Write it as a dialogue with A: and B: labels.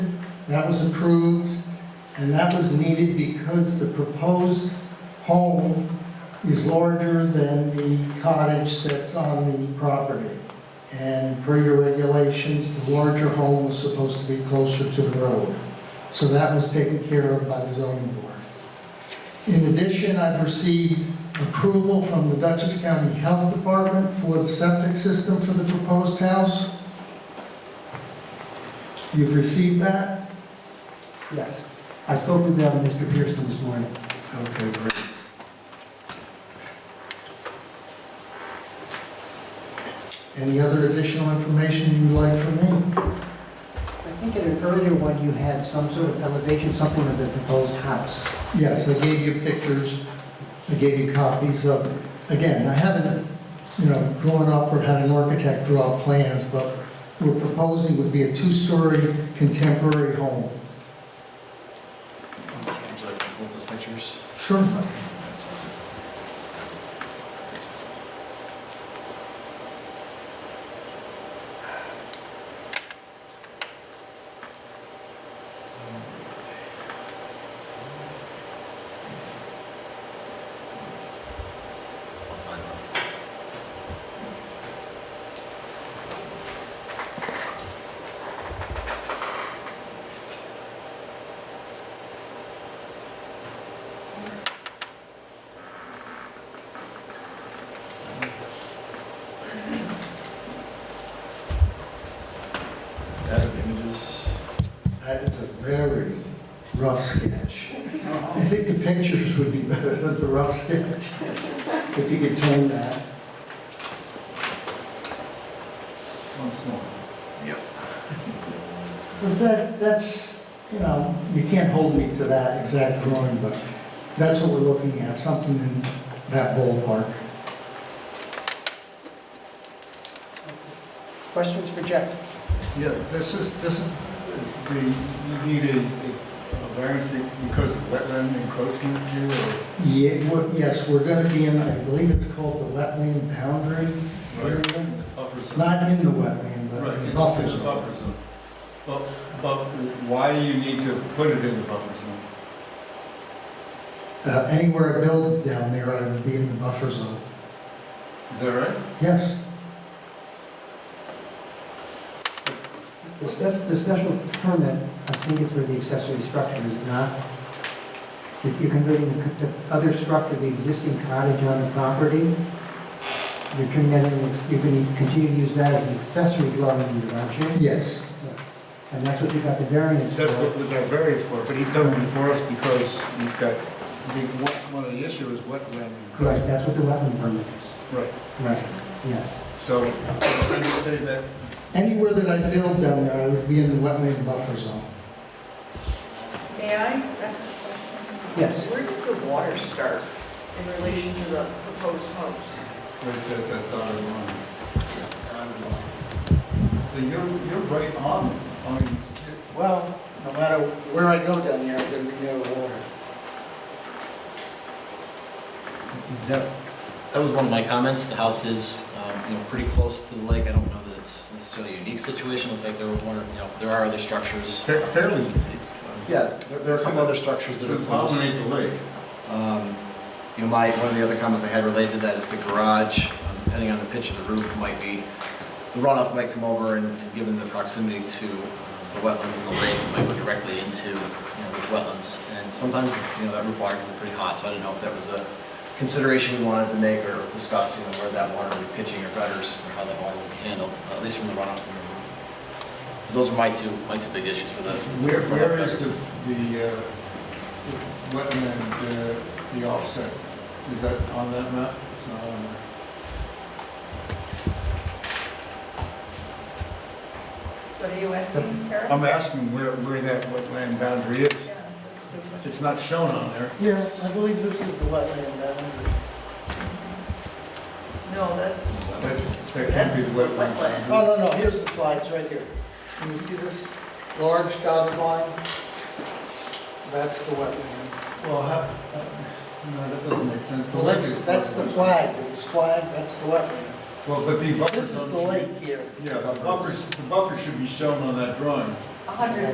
A: That was approved, and that was needed because the proposed home is larger than the cottage that's on the property. And per your regulations, the larger home was supposed to be closer to the road. So that was taken care of by the zoning board. In addition, I've received approval from the Dutchess County Health Department for the septic system for the proposed house. You've received that?
B: Yes. I spoke with uh, Mr. Pearson this morning.
A: Okay, great. Any other additional information you'd like from me?
B: I think in an earlier one, you had some sort of elevation, something of the proposed house.
A: Yes, I gave you pictures, I gave you copies of, again, I haven't, you know, drawn up or had an architect draw up plans, but we're proposing would be a two-story contemporary home.
C: Would you like to pull those pictures?
A: Sure.
C: Is that the images?
A: That is a very rough sketch. I think the pictures would be better than the rough sketch, yes, if you could turn that.
C: Yep.
A: But that, that's, you know, you can't hold me to that exact drawing, but that's what we're looking at, something in that ballpark.
B: Questions for Jeff?
D: Yeah, this is, this is, the, you need a, a variance because of wetland encroachment here, or?
A: Yeah, we're- yes, we're gonna be in, I believe it's called the wetland boundary area.
D: Buffer zone.
A: Not in the wetland, but in the buffer
D: it's a
A: zone.
D: Buffer zone. But, but why do you need to put it in the buffer zone?
A: Uh, Anywhere I build down there, I would be in the buffer zone.
D: Is that right?
A: Yes,
B: The spec- the special permit, I think it's for the accessory structure, is it not? If You're converting the co- the other structure, the existing cottage on the property, you're turning that in, you're going to continue to use that as an accessory dwelling unit, aren't you?
A: yes.
B: And that's what you got the variance for.
D: That's what we got variance for, but he's coming before us because we've got, I think one, one of the issues is wetland
B: Right,
D: encroachment.
B: that's what the wetland permit is.
D: Right,
B: Right, yes.
D: so, can you say that,
A: Anywhere that I build down there, I would be in the wetland buffer zone.
E: May I ask a question?
B: Yes.
E: Where does the water start in relation to the proposed house?
D: where's that, that dotted line?
A: Dotted line.
D: So you're, you're right on, on,
A: Well, no matter where I go down there, I'm gonna be near the water.
D: that,
C: That was one of my comments. The house is, um, you know, pretty close to the lake. I don't know that it's necessarily a unique situation. In fact, there were, more- you know, there are other structures.
D: fa- fairly,
C: Yeah, there- there are a couple other structures that
D: to
C: are close.
D: dominate the lake.
C: Um, You know, my, one of the other comments I had related to that is the garage, um, depending on the pitch of the roof, might be, the runoff might come over and, and given the proximity to um, the wetlands and the lake, it might go directly into, you know, these wetlands. And sometimes, you know, that roof water can be pretty hot, so I do not know if that was a consideration we wanted to make or discuss, you know, where that water would be pitching or gutters, or how that water would be handled, uh, at least from the runoff from the roof. Those are my two, my two big issues with the.
D: Where, where is the, the uh, the wetland, uh, the offset? Is that on that map? It's not on there.
E: What are you asking, Karen?
D: I'm asking where, where that wetland boundary is.
E: Yeah, that's a good question.
D: It's not shown on there.
A: Yes, I believe this is the wetland boundary.
E: No, that's,
D: That that can't be the wetland boundary.
A: Oh, no, no, here's the flags, right here. Can you see this large dotted line? That's the wetland.
D: Well, how, uh, no, that doesn't make sense. The
A: Well,
D: lake
A: that's,
D: is
A: that's the
D: wetland.
A: flag, it was flagged, that's the wetland.
D: Well, but the buffer.
A: This is
D: zone
A: the
D: should be-
A: lake here.
D: Yeah, the buffer, the buffer should be shown on that drawing.
E: 100